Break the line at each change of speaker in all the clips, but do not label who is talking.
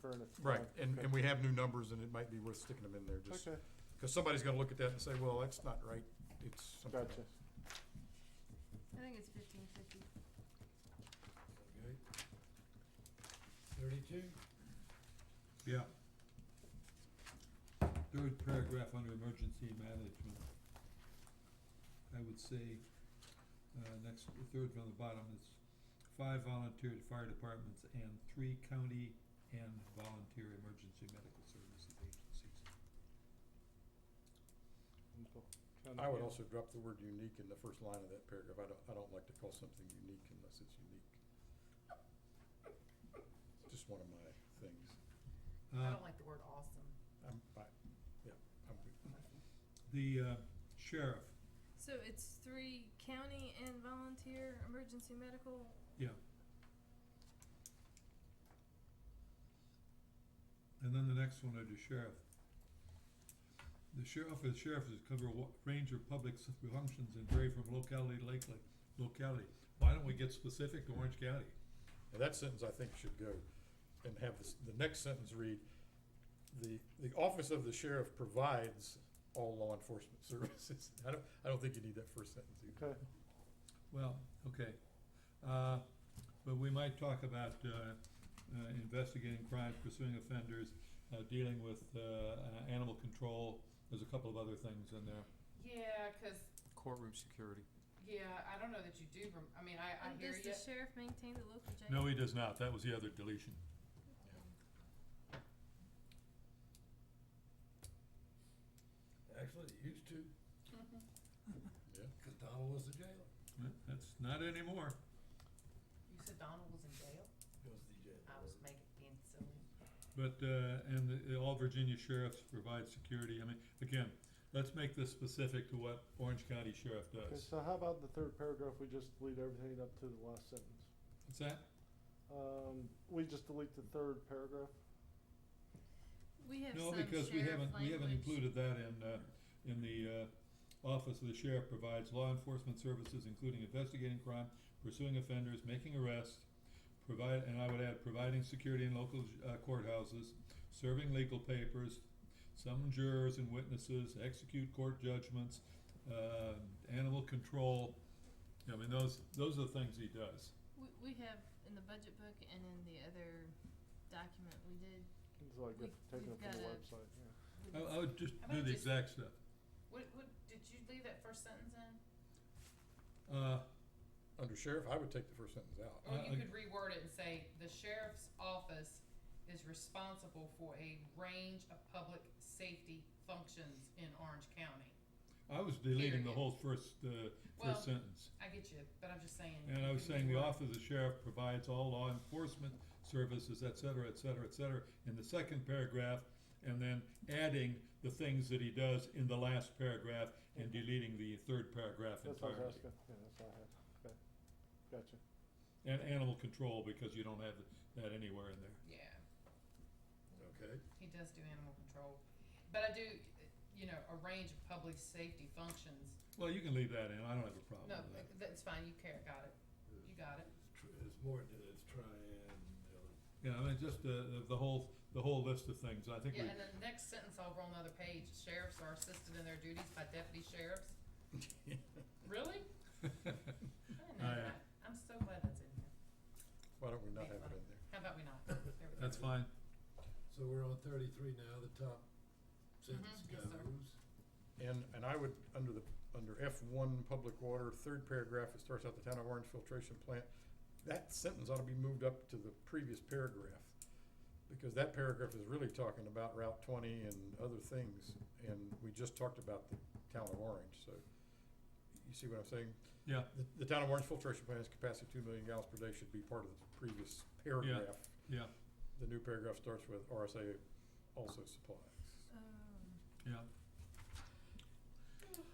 for an.
Right, and,
okay.
and we have new numbers, and it might be worth sticking them in there, just,
Okay,
because somebody's gonna look at that and say, well, that's not right, it's something.
gotcha.
I think it's fifteen fifty.
Okay. Thirty-two?
Yeah. Third paragraph under emergency management. I would say, uh, next, the third from the bottom is five volunteer fire departments and three county and volunteer emergency medical services agencies.
Trying to
I would
get-
also drop the word unique in the first line of that paragraph, I don't, I don't like to call something unique unless it's unique. It's Just one of my things,
I
Uh,
don't like the word awesome.
I'm, I, yeah, I'm good.
the, uh, sheriff,
So it's three county and volunteer emergency medical?
Yeah. And then the next one are the sheriff. The sheriff is sheriff is cover a wa- range of public s- functions and vary from locality to locality, locality. Why don't we get specific to Orange County?
And that sentence, I think, should go and have this, the next sentence read, the, the office of the sheriff provides all law enforcement services. I don't, I don't think you need that first sentence either.
Okay,
Well, okay, uh, but we might talk about, uh, uh, investigating crimes, pursuing offenders, uh, dealing with, uh, uh, animal control. There's a couple of other things in there.
Yeah, 'cause
Courtroom security.
yeah, I don't know that you do. Rem- I mean, I, I
And
hear
does
you.
the sheriff maintain the local jail?
No, he does not. That was the other deletion.
Actually, it used to,
Mhm.
cause Donald was the jailer.
Uh, That's not anymore.
You said Donald was in jail.
He was the jailer.
I was making being silly.
But, uh, and the- all Virginia sheriffs provide security, I mean, again, let's make this specific to what Orange County Sheriff
okay,
does.
so how about the third paragraph, we just delete everything up to the last sentence?
What's that?
Um, we just delete the third paragraph?
We have
No,
some
because we
sheriff
haven't, we haven't
language.
included that in, uh, in the, uh, office of the sheriff provides law enforcement services, including investigating crime, pursuing offenders, making arrests, provide, and I would add, providing security in local uh, courthouses, serving legal papers, summon jurors and witnesses, execute court judgments, uh, animal control. I mean, those, those are the things he does.
We, we have in the budget book and in the other document we did.
It's like
We-
if taken
we've
up from the
gotta-
website, yeah.
with
I, I would just
How
do
about
the
just-
exact stuff.
What, what did you leave that first sentence in?
Uh,
Under sheriff, I would take the first sentence out.
Or
Uh,
you
I-
could reword it and say the sheriff's office is responsible for a range of public safety functions in Orange County.
I was deleting the
Period.
whole first, uh,
Well,
first sentence.
I get you, but I'm just saying.
And
you
I was
could
saying the
reword-
office of the sheriff provides all law enforcement services, et cetera, et cetera, et cetera, in the second paragraph, and then adding the things that he does in the last paragraph and deleting the third paragraph
That's what I was
entirely.
asking, yeah, that's what I had, okay, gotcha.
And animal control, because you don't have that anywhere in there.
Yeah.
Okay.
He does do animal control, but I do, you know, a range of public safety functions.
Well, you can leave that in, I don't have a problem
No,
with that.
that's fine, you care, got it, you got it.
It's tr- It's more than it's Tryon, uh,
Yeah, I mean, just uh, the, the whole, the whole list of things, I think we,
Yeah, and then the next sentence over on another page, sheriffs are assisted in their duties by deputy sheriffs. Really? I didn't know
I, uh,
that. I'm so glad that's in here.
Why don't we not have it in there?
How about we not? There we go.
that's fine.
so we're on thirty-three now, the top sentence
Mhm, yes,
goes.
sir.
And, and I would, under the, under F one, public water, third paragraph, it starts out the town of Orange filtration plant. That sentence ought to be moved up to the previous paragraph, because that paragraph is really talking about Route twenty and other things, and we just talked about the town of Orange, so. You see what I'm saying?
Yeah.
The, the town of Orange filtration plant's capacity of two million gallons per day should be part of the previous paragraph.
yeah.
The new paragraph starts with RSA also supplies.
Oh.
Um,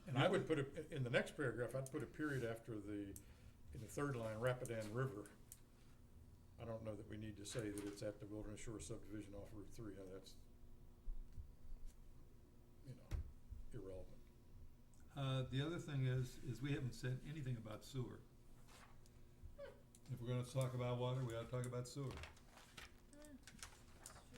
And I would put a, in the next paragraph, I'd put a period after the, in the third line, Rapidan River. I don't know that we need to say that it's at the Wilderness Shore subdivision off Route three, uh, that's, you know, irrelevant.
Uh, the other thing is, is we haven't said anything about sewer. If we're gonna talk about water, we ought to talk about sewer.